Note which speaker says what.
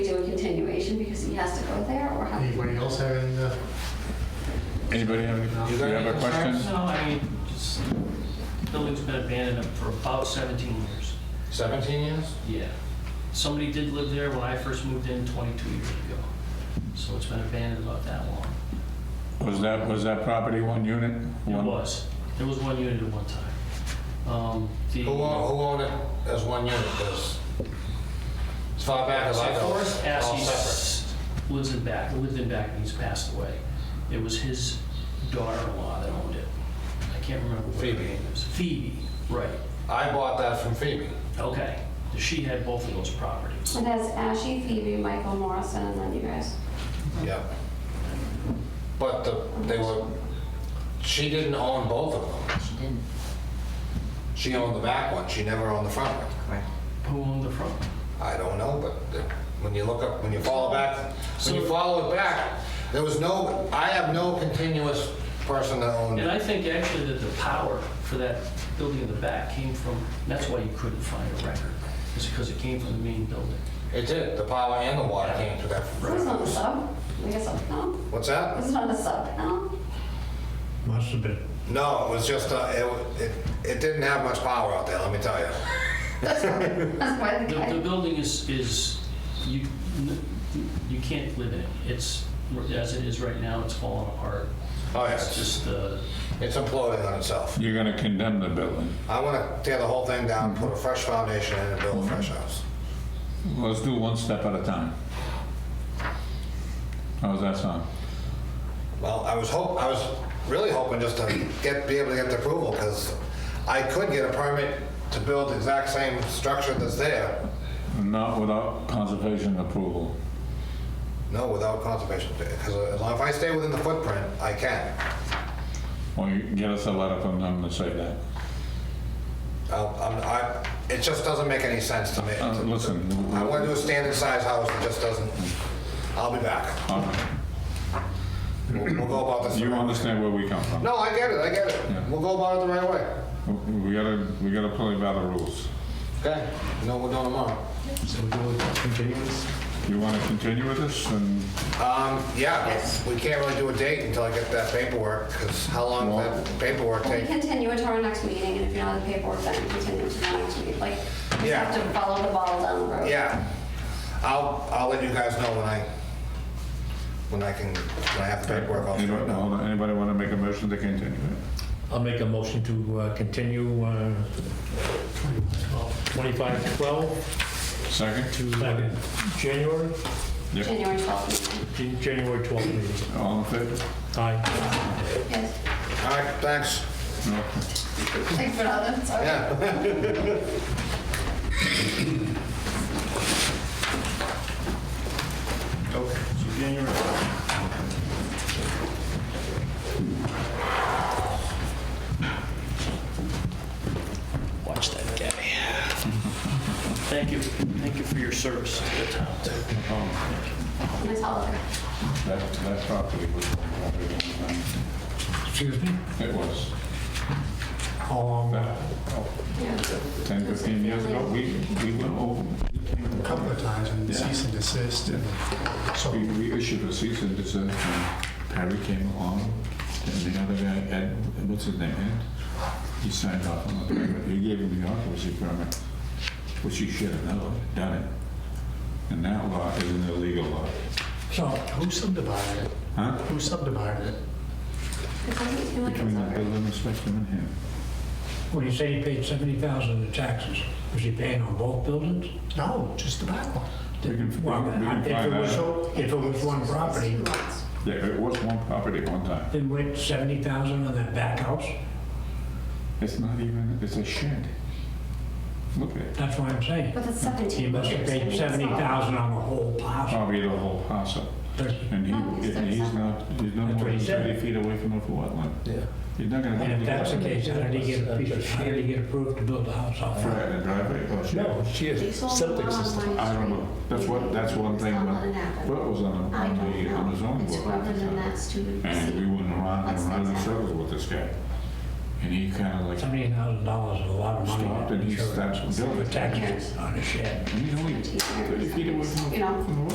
Speaker 1: he has to go there or how?
Speaker 2: Anybody else have any, uh,
Speaker 3: Anybody have any, you have a question?
Speaker 4: No, I mean, just, building's been abandoned for about 17 years.
Speaker 2: 17 years?
Speaker 4: Yeah. Somebody did live there when I first moved in 22 years ago. So it's been abandoned about that long.
Speaker 3: Was that, was that property one unit?
Speaker 4: It
Speaker 3: One-
Speaker 4: was. There was one unit at one time. Um, The
Speaker 2: Who owned, who owned it as one unit? 'Cause As far back as I
Speaker 4: So
Speaker 2: know.
Speaker 4: Forrest
Speaker 2: it's all
Speaker 4: Assey
Speaker 2: separate.
Speaker 4: s- lives in back, lived in back, and he's passed away. It was his daughter-in-law that owned it. I can't remember what her
Speaker 2: Phoebe.
Speaker 4: name is. Phoebe, right.
Speaker 2: I bought that from Phoebe.
Speaker 4: Okay. She had both of those properties.
Speaker 1: And that's Ashy, Phoebe, Michael Morrison, and then you guys.
Speaker 2: Yeah. But the, they were, she didn't own both of them.
Speaker 5: She didn't,
Speaker 2: She owned the back one, she never owned the front one.
Speaker 5: correct.
Speaker 4: Who owned the front?
Speaker 2: I don't know, but the- when you look up, when you follow back, when you
Speaker 4: So-
Speaker 2: follow it back, there was no, I have no continuous person that owned
Speaker 4: And
Speaker 2: it.
Speaker 4: I think actually that the power for that building in the back came from, and that's why you couldn't find a record, is because it came from the main building.
Speaker 2: It did, the power and the water came to that.
Speaker 1: This is on the sub, I guess, no?
Speaker 2: What's that?
Speaker 1: This is on the sub, no?
Speaker 6: Must have been.
Speaker 2: No, it was just, uh, it, wa- it, it didn't have much power out there, let me tell you.
Speaker 1: That's why the
Speaker 4: The, the
Speaker 1: guy,
Speaker 4: building is, is, you, you can't live in it. It's, as it is right now, it's falling apart.
Speaker 2: Oh, yeah,
Speaker 4: It's
Speaker 2: it's just,
Speaker 4: just, uh,
Speaker 2: it's imploding on itself.
Speaker 3: You're gonna condemn the building.
Speaker 2: I wanna tear the whole thing down, put a fresh foundation in and build a fresh house.
Speaker 3: Let's do one step at a time. How's that sound?
Speaker 2: Well, I was hope, I was really hoping just to get, be able to get the approval, because I could get a permit to build the exact same structure that's there,
Speaker 3: Not without conservation approval.
Speaker 2: no, without conservation, because as long as I stay within the footprint, I can.
Speaker 3: Or you get us a letter from them to say that.
Speaker 2: I'll- I'm, I, it just doesn't make any sense to me.
Speaker 3: Uh, Listen,
Speaker 2: I wanna do a standard size house, it just doesn't, I'll be back.
Speaker 3: uh,
Speaker 2: We'll we'll go about this. the
Speaker 3: you
Speaker 2: right way.
Speaker 3: understand where we come from.
Speaker 2: No, I get it, I get it.
Speaker 3: Yeah.
Speaker 2: We'll go about it the right way.
Speaker 3: We gotta, we gotta play by the rules.
Speaker 2: Okay. No, we're doing tomorrow.
Speaker 6: So we're doing continuance?
Speaker 3: You wanna continue with this and
Speaker 2: Um, yeah, we can't really do a date until I get that paperwork, because how long does that paperwork
Speaker 1: we
Speaker 2: take?
Speaker 1: continue it to our next meeting, and if you're not in the paperwork, then continue to the next meeting. Like, we
Speaker 2: Yeah.
Speaker 1: have to follow the ball down the road.
Speaker 2: Yeah. I'll, I'll let you guys know when I, when I can, when I have the paperwork all straightened
Speaker 3: Anybody-
Speaker 2: out.
Speaker 3: hold on, Anybody want to make a motion to continue it?
Speaker 6: I'll make a motion to uh, continue uh, 2512
Speaker 3: Second?
Speaker 6: to uh, January,
Speaker 3: Yep.
Speaker 1: January 12th meeting.
Speaker 6: Jan- January 12th meeting.
Speaker 3: All in favor?
Speaker 6: Aye.
Speaker 1: Yes,
Speaker 2: All right, thanks.
Speaker 3: No.
Speaker 1: thanks for all that, sorry.
Speaker 2: Yeah.
Speaker 4: watch that guy. Thank you, thank you for your service to the town.
Speaker 1: I'm gonna tell her.
Speaker 3: That, that property was.
Speaker 6: Excuse me?
Speaker 3: It was.
Speaker 6: How long?
Speaker 3: That-
Speaker 1: Yeah.
Speaker 3: 10, 15 years ago, we, we went over,
Speaker 7: a couple of times and
Speaker 3: Yeah.
Speaker 7: cease and desist. and So
Speaker 3: we, we issued a cease and desist, and Perry came along, and the other guy, Ed, what's his name, Ed? He signed off on the permit, he gave him the occupancy permit, which he should have known, done it. And that lot is an illegal lot.
Speaker 6: So,
Speaker 7: who subdivided it?
Speaker 3: Huh?
Speaker 7: Who subdivided it?
Speaker 1: It doesn't seem like
Speaker 3: Between the
Speaker 1: it's over.
Speaker 3: building inspector and him.
Speaker 6: when you say he paid 70,000 in taxes, was he paying on both buildings?
Speaker 7: No, just the back one.
Speaker 3: We can-
Speaker 6: Well,
Speaker 3: we can
Speaker 6: if it
Speaker 3: find
Speaker 6: was-
Speaker 3: out.
Speaker 7: So if it was one property,
Speaker 1: Two lots.
Speaker 3: Yeah, it was one property at one time.
Speaker 6: Then went 70,000 on that back house?
Speaker 3: It's not even, it's a shed. Look at it.
Speaker 6: That's what I'm saying.
Speaker 1: But it's
Speaker 6: He
Speaker 1: 17
Speaker 6: must have
Speaker 1: acres, I mean,
Speaker 6: paid
Speaker 1: it's not-
Speaker 6: 70,000 on the whole parcel.
Speaker 3: Probably the whole parcel. And he,
Speaker 1: Oh,
Speaker 3: and he's not, he's not
Speaker 6: That's
Speaker 3: more
Speaker 6: what he
Speaker 3: than
Speaker 6: said.
Speaker 3: 30 feet away from the wetland.
Speaker 8: Yeah.
Speaker 3: He's not gonna.
Speaker 6: And if that's the case, how did he get a piece of, how did he get approved to build the house off?
Speaker 3: Right, the driveway, oh, shit.
Speaker 8: No, she
Speaker 1: They
Speaker 8: has
Speaker 1: sold
Speaker 8: septic
Speaker 1: the lot on
Speaker 8: system.
Speaker 1: my
Speaker 3: I don't know.
Speaker 1: street.
Speaker 3: That's what, that's one
Speaker 1: It's
Speaker 3: thing,
Speaker 1: not
Speaker 3: but,
Speaker 1: gonna happen.
Speaker 3: but it was on,
Speaker 1: I
Speaker 3: on
Speaker 1: don't
Speaker 3: the,
Speaker 1: know.
Speaker 3: on the zoning
Speaker 1: It's
Speaker 3: board.
Speaker 1: whether
Speaker 3: at the
Speaker 1: than
Speaker 3: time.
Speaker 1: that's stupid.
Speaker 3: And we went around
Speaker 1: Let's
Speaker 3: and around in
Speaker 1: fix that.
Speaker 3: circles with this guy. And he kinda like
Speaker 6: Seventy thousand dollars is a lot of money.
Speaker 3: stopped and he starts building.
Speaker 6: Taxes on a shed.
Speaker 3: And he's only 30 feet away from the
Speaker 1: You know.
Speaker 3: from the wetland.